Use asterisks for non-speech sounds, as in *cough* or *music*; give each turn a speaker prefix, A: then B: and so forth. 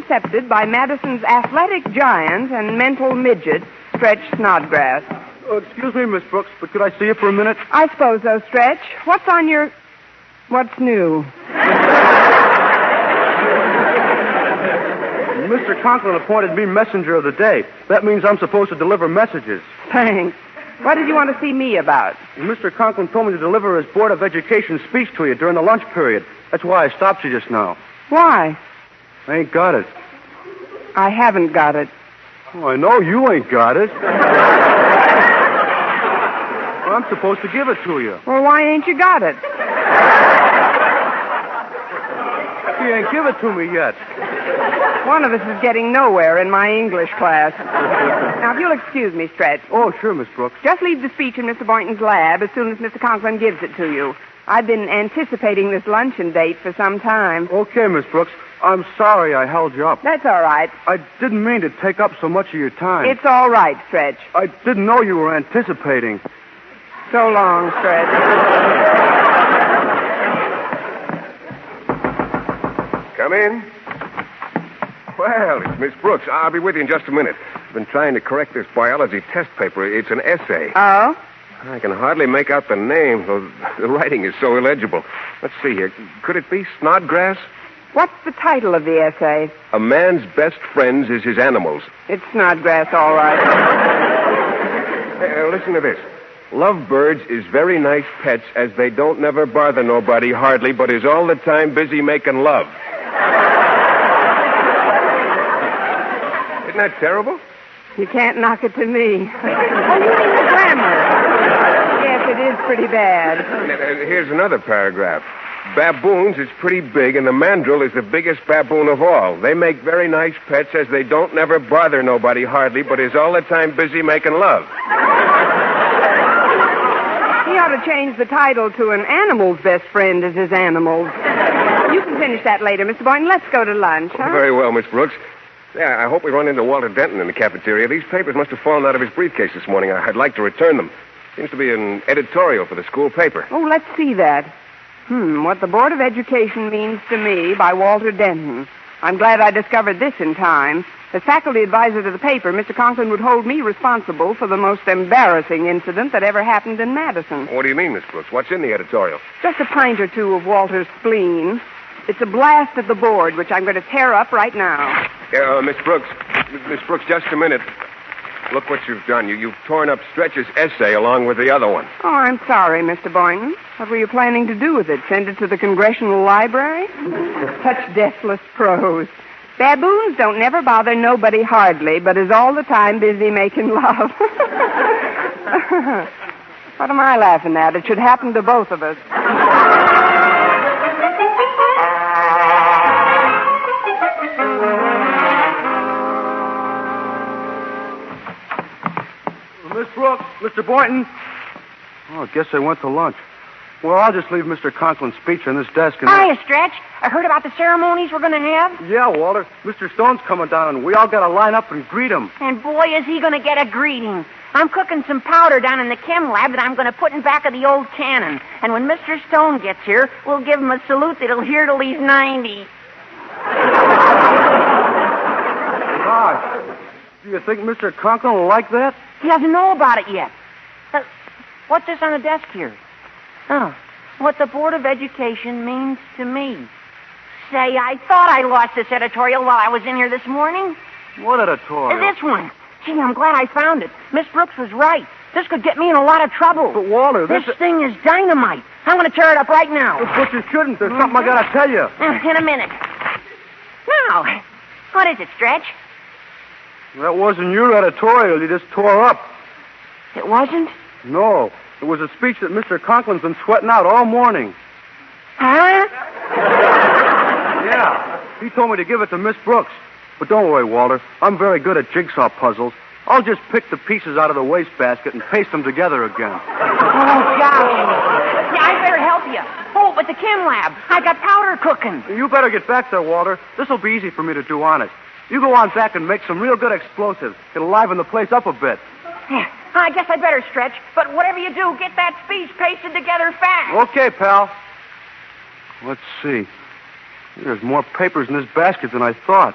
A: intercepted by Madison's athletic giant and mental midget, Stretch Snodgrass.
B: Oh, excuse me, Miss Brooks, but could I see you for a minute?
A: I suppose so, Stretch. What's on your. What's new? *laughs*
B: Mr. Conklin appointed me messenger of the day. That means I'm supposed to deliver messages.
A: Thanks. What did you want to see me about?
B: Mr. Conklin told me to deliver his Board of Education speech to you during the lunch period. That's why I stopped you just now.
A: Why?
B: I ain't got it.
A: I haven't got it.
B: Oh, I know you ain't got it. Well, I'm supposed to give it to you.
A: Well, why ain't you got it?
B: You ain't give it to me yet.
A: One of us is getting nowhere in my English class. Now, if you'll excuse me, Stretch,
B: Oh, sure, Miss Brooks.
A: just leave the speech in Mr. Boynton's lab as soon as Mr. Conklin gives it to you. I've been anticipating this luncheon date for some time.
B: Okay, Miss Brooks. I'm sorry I held you up.
A: That's all right.
B: I didn't mean to take up so much of your time.
A: It's all right, Stretch.
B: I didn't know you were anticipating.
A: So long, Stretch.
C: Come in. Well, it's Miss Brooks. I'll be with you in just a minute. I've been trying to correct this biology test paper. It's an essay.
A: Oh?
C: I can hardly make out the name, though the writing is so illegible. Let's see here. Could it be Snodgrass?
A: What's the title of the essay?
C: A man's best friends is his animals.
A: It's Snodgrass, all right.
C: Uh, listen to this. Lovebirds is very nice pets as they don't never bother nobody hardly, but is all the time busy making love. *laughs* Isn't that terrible?
A: You can't knock it to me. oh, you mean the grammar? Yes, it is pretty bad.
C: And, uh, Here's another paragraph. Baboons is pretty big, and the mandrill is the biggest baboon of all. They make very nice pets as they don't never bother nobody hardly, but is all the time busy making love.
A: He ought to change the title to An Animal's Best Friend is His Animals. You can finish that later, Mr. Boynton. Let's go to lunch, huh?
C: Very well, Miss Brooks. Yeah, I hope we run into Walter Denton in the cafeteria. These papers must have fallen out of his briefcase this morning. I- I'd like to return them. Seems to be an editorial for the school paper.
A: Oh, let's see that. Hmm, what the Board of Education means to me by Walter Denton. I'm glad I discovered this in time. As faculty advisor to the paper, Mr. Conklin would hold me responsible for the most embarrassing incident that ever happened in Madison.
C: What do you mean, Miss Brooks? What's in the editorial?
A: Just a pint or two of Walter's spleen. It's a blast at the board, which I'm going to tear up right now.
C: Uh, Miss Brooks, Miss Brooks, just a minute. Look what you've done. You, you've torn up Stretch's essay along with the other one.
A: Oh, I'm sorry, Mr. Boynton. What were you planning to do with it? Send it to the Congressional Library? Such deathless prose. Baboons don't never bother nobody hardly, but is all the time busy making love. *laughs* what am I laughing at? It should happen to both of us.
B: Miss Brooks, Mr. Boynton. Oh, I guess they went to lunch. Well, I'll just leave Mr. Conklin's speech on this desk and.
D: Hiya, Stretch. I heard about the ceremonies we're going to have,
B: Yeah, Walter. Mr. Stone's coming down, and we all got to line up and greet him.
D: and boy, is he going to get a greeting. I'm cooking some powder down in the chem lab that I'm going to put in back of the old cannon. And when Mr. Stone gets here, we'll give him a salute that'll hear till he's 90.
B: Gosh. Do you think Mr. Conklin will like that?
D: He doesn't know about it yet. Uh, what's this on the desk here? Oh, what the Board of Education means to me. Say, I thought I lost this editorial while I was in here this morning.
B: What editorial?
D: This one. Gee, I'm glad I found it. Miss Brooks was right. This could get me in a lot of trouble.
B: But, Walter,
D: Oh, This
B: this.
D: thing is Oh. dynamite. I'm going to tear it up right now.
B: But you shouldn't. There's something I got to tell you.
D: In a minute. Now, what is it, Stretch?
B: That wasn't your editorial. You just tore up.
D: It wasn't?
B: No. It was a speech that Mr. Conklin's been sweating out all morning.
D: Huh?
B: Yeah. He told me to give it to Miss Brooks. But don't worry, Walter. I'm very good at jigsaw puzzles. I'll just pick the pieces out of the wastebasket and paste them together again.
D: Oh, golly. Yeah, I better help you. Oh, but the chem lab. I got powder cooking.
B: You better get back there, Walter. This'll be easy for me to do honest. You go on back and make some real good explosives. It'll liven the place up a bit.
D: Yeah, I guess I better stretch, but whatever you do, get that speech pasted together fast.
B: Okay, pal. Let's see. There's more papers in this basket than I thought.